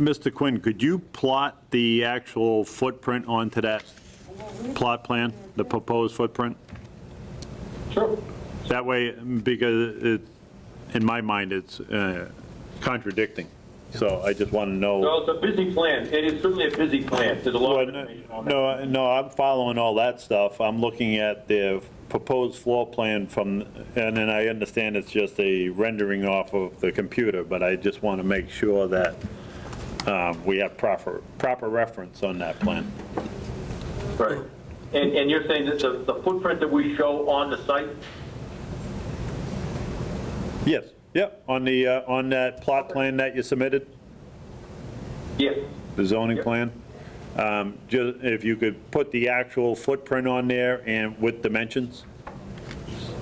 Mr. Quinn, could you plot the actual footprint onto that plot plan, the proposed footprint? Sure. That way, because it, in my mind, it's uh, contradicting. So I just want to know. Well, it's a busy plan. It is certainly a busy plan. There's a lot of information on that. No, no, I'm following all that stuff. I'm looking at the proposed floor plan from, and then I understand it's just a rendering off of the computer, but I just want to make sure that um, we have proper, proper reference on that plan. Right. And, and you're saying that the, the footprint that we show on the site, Yes, yep, on the, uh, on that plot plan that you submitted, yeah, the zoning Yep. plan, um, ju- if you could put the actual footprint on there and with dimensions,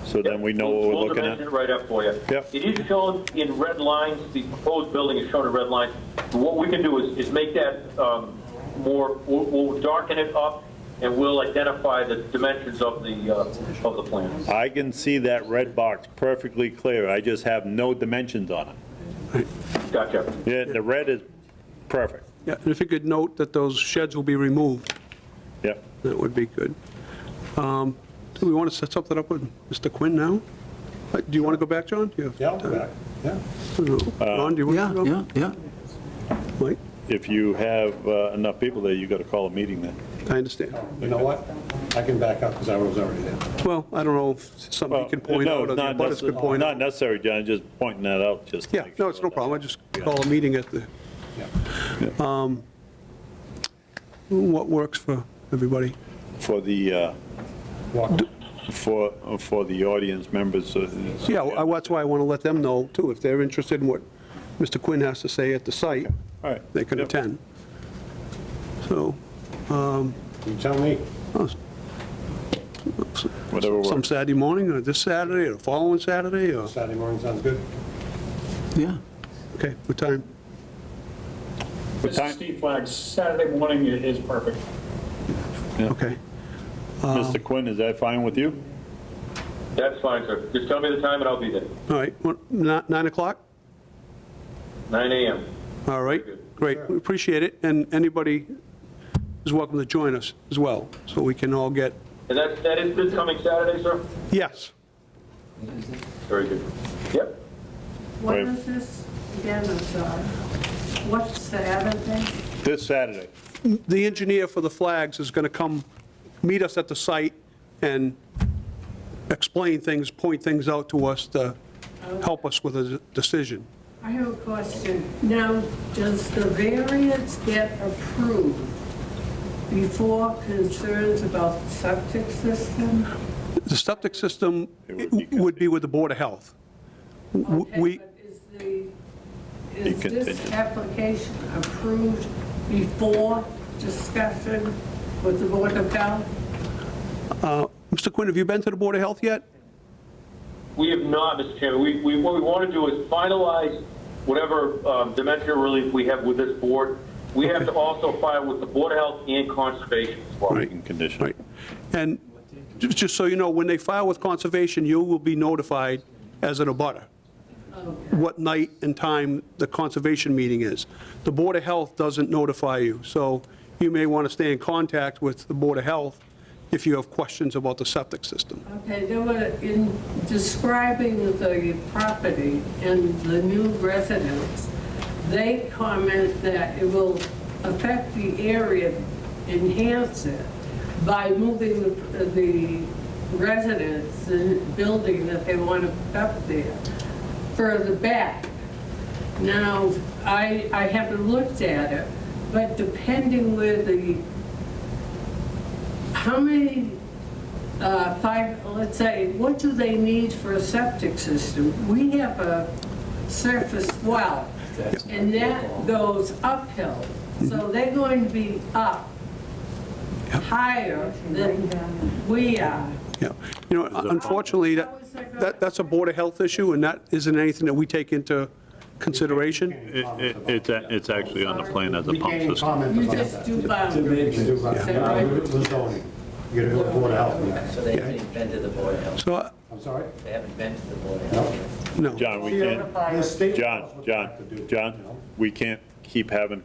so then we know what We'll- we're looking We'll at. dimension it right up for you. Yep. It is shown in red lines, the proposed building is shown in red lines. What we can do is, is make that um, more, we'll- we'll darken it up, and we'll identify the dimensions of the, uh, of the plan. I can see that red box perfectly clear, I just have no dimensions on it. Gotcha. Yeah, the red is perfect, Yeah, and if you could note that those sheds will be removed, yep. that would be good. Um, Do we want to set something up with Mr. Quinn now? Uh, Do you want to go back, John? Do you have time? yeah. Ron, do you want Yeah, to go? yeah, yeah. Mike, If you have uh, enough people there, you gotta call a meeting then. I understand. You know what? I can back up because I was already there. Well, I don't know if somebody can point No, out, or the not abutters could necess- point Not out. necessary, John, just pointing that out, just. to Yeah, make no, sure it's no that- problem, I just call a meeting at the, um, Yeah. what works for everybody. For the, uh, Walk- for, for the audience members. uh, Yeah, well, I- that's why I want to let them know, too, if they're interested in what Mr. Quinn has to say at the site, All right. they can Yep. attend. So, You tell me. oh, Whatever some works. Saturday morning, or this Saturday, or the following Saturday, or, Saturday morning sounds good. Yeah. okay, what time? What This is time, Steve Flag. Saturday morning i- is perfect. Okay, Mr. Quinn, is that fine with you? That's fine, sir. Just tell me the time and I'll be there. all right, what, ni- 9 o'clock? 9 AM. All right, great, we appreciate it, and anybody is welcome to join us as well, so we can all get, And that, that is this coming Saturday, sir? yes, Very good. Yep. What Right. is this again, I'm sorry? What's the other thing? This Saturday. the engineer for the flags is going to come meet us at the site and explain things, point things out to us to help us with a decision. I have a question. Now, does the variance get approved before concerns about the septic system? The septic system It would be- would be with the Board of Health. W- Okay, We, but Is the, is Be this contingent. application approved before discussion with the Board of Health? Mr. Quinn, have you been to the Board of Health yet? We have not, Mr. Chairman. We, we, what we want to do is finalize whatever um, dementia relief we have with this board. We have to also file with the Board of Health and Conservation as well. Right. In condition. Right. And ju- just so you know, when they file with Conservation, you will be notified as an abutter what night and time the Conservation meeting is. The Board of Health doesn't notify you, so you may want to stay in contact with the Board of Health if you have questions about the septic system. Okay, there were, in describing the property and the new residents, they comment that it will affect the area, enhance it, by moving the the residents, the building that they want to put up there, further back. Now, I, I haven't looked at it, but depending where the, how many uh, five, let's say, what do they need for a septic system? We have a surface well, and that goes uphill. So they're going to be up higher than we are. Yeah. You know, unfortunately, that, that- that's a Board of Health issue, and that isn't anything that we take into consideration. It, it, it's a- it's actually on the plan as a We pump can't system. comment You about just that. do boundaries. You do about- Is that yeah, right? leave it to the zoning. You gotta go to Board of Health. So they haven't been to the Board of Health. So, uh, I'm sorry? They haven't been to the Board of No. Health. no. John, we Yeah, can't, the state John, laws would have to do John, it, you know? John, we can't keep having